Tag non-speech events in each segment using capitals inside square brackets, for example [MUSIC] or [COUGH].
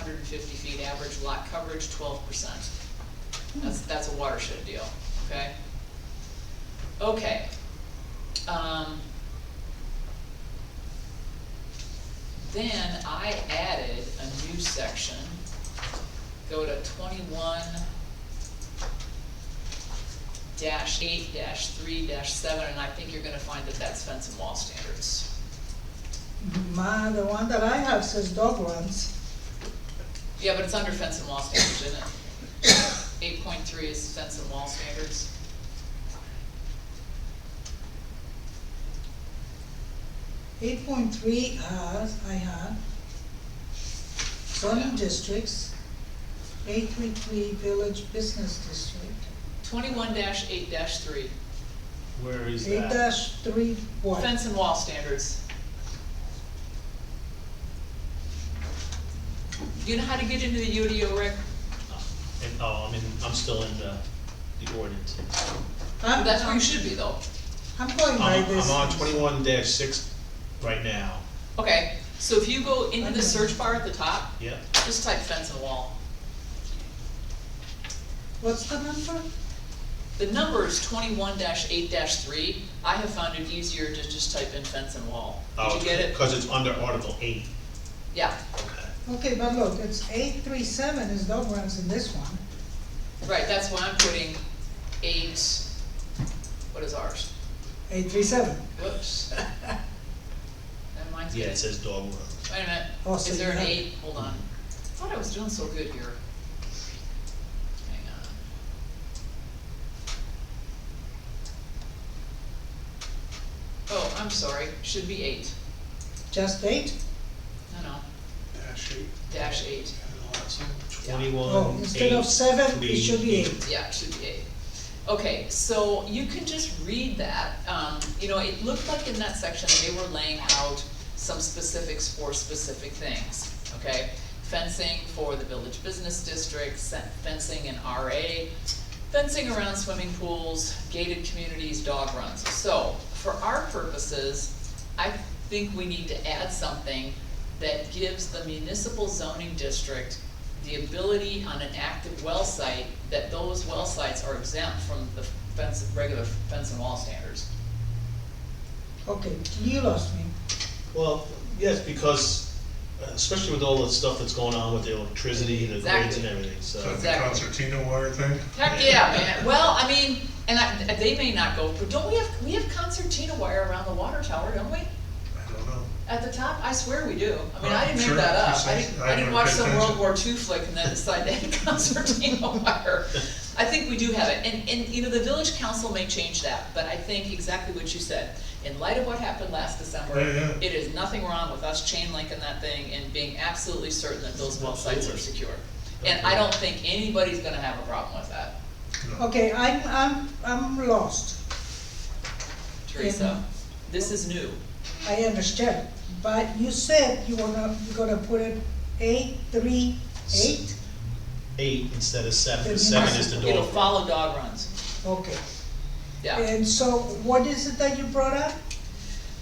fifty feet, average lot coverage twelve percent. That's, that's a watershed deal, okay? Okay. Um, Then I added a new section, go to twenty-one dash eight dash three dash seven, and I think you're gonna find that that's fence and wall standards. My, the one that I have says dog runs. Yeah, but it's under fence and wall standards, isn't it? Eight point three is fence and wall standards. Eight point three has, I have. Zoning districts, eight three three village business district, Twenty-one dash eight dash three, Where is eight that? dash three what? fence and wall standards. You know how to get into the UDO, Rick? And, oh, I'm in, I'm still in the, the ordinance. I'm, That's where you I'm should be though. I'm going by I'm, this. I'm on twenty-one dash six right now, Okay, so if you go into the search bar at the top, yeah, just type fence and wall. What's the number? The number is twenty-one eight three. I have found it easier to just type in fence and wall. Did oh, you get it? cause it's under Article eight, Yeah, okay. Okay, but look, it's eight three seven is dog runs in this one. right, that's why I'm putting eight, what is ours? Eight three [LAUGHS] seven. Whoops. And mine's Yeah, getting, it says dog run. wait a minute, Oh, so is there you an have- eight? Hold on. I thought I was doing so good here. Hang on. Oh, I'm sorry, should be eight. Just eight? No, no, Dash eight. dash eight. And all that's in. Oh, Twenty-one, instead eight, of seven, it three, should be eight. eight. Yeah, it should be eight. Okay, so you can just read that, um, you know, it looked like in that section, they were laying out some specifics for specific things, okay? Fencing for the village business district, sen- fencing in RA, fencing around swimming pools, gated communities, dog runs. So, for our purposes, I think we need to add something that gives the municipal zoning district the ability on an active well site, that those well sites are exempt from the fence, regular fence and wall standards. Okay, you lost me. Well, yes, because, uh, especially with all the stuff that's going on with the electricity and the grids and Exactly. everything, so. Is that Uh, the Exactly. concertina wire thing? Heck, yeah, man, well, I mean, and I, they may not go, but don't we have, we have concertina wire around the water tower, don't we? I don't know. At the top, I swear we do. I mean, I didn't make Sure, that you up. I said- didn't, I I didn't never watch paid some World attention. War II flick and then decide to [LAUGHS] have concertina wire. I think we do have it, and, and, you know, the village council may change that, but I think exactly what you said. In light of what happened last December, Yeah, yeah. it is nothing wrong with us chain linking that thing and being absolutely certain that those well sites are secure. And I don't think anybody's gonna have a problem with that, No. Okay, I'm, I'm, I'm lost. Teresa. This is new. I understand, but you said you wanna, you're gonna put it eight, three, eight? Eight instead of seven, 'cause Then you seven is the It'll dog run. follow dog runs, Okay, yeah. and so what is it that you brought up?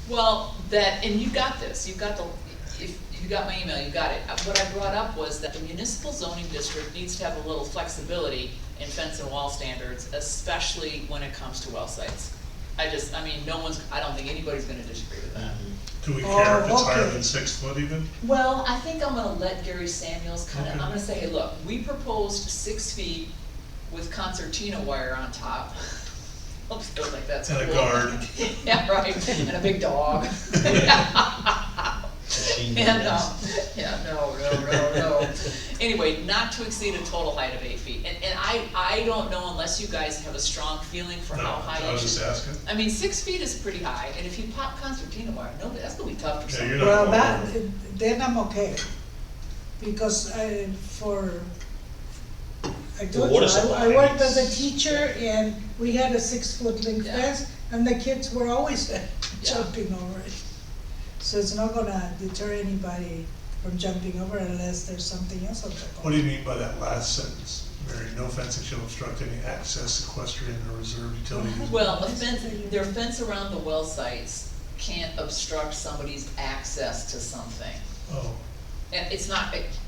Well, that, and you got this, you got the, if, you got my email, you got it. Uh, What I brought up was that the municipal zoning district needs to have a little flexibility in fence and wall standards, especially when it comes to well sites. I just, I mean, no one's, I don't think anybody's gonna disagree with that. Mhm. Do we care if it's Oh, higher okay. than six foot even? Well, I think I'm gonna let Gary Samuels kinda, I'm Okay. gonna say, hey, look, we proposed six feet with concertina wire on top. [LAUGHS] Oops, feels like that's And a cool. guard. [LAUGHS] Yeah, right, and a big [LAUGHS] dog. [LAUGHS] Machine gun, Yeah, no, yes. yeah, no, no, no, no. Anyway, not to exceed a total height of eight feet, and, and I, I don't know unless you guys have a strong feeling for No, how high I it was just should. asking. I mean, six feet is pretty high, and if you pop concertina wire, no, that's gonna be tough for Yeah, someone. you're not Well, going that, over. then I'm okay, because I, for, I told you, water I, I supply worked as a needs- teacher and we had a six-foot link Yeah. fence, and the kids were always [LAUGHS] jumping over it. So it's not gonna deter anybody from jumping over unless there's something else on top of it. What do you mean by that last sentence? Mary, no fencing shall obstruct any access, equestrian or reserved utility. use." Well, a fence, their fence around the well sites can't obstruct somebody's access to something. Oh, And it's not, it-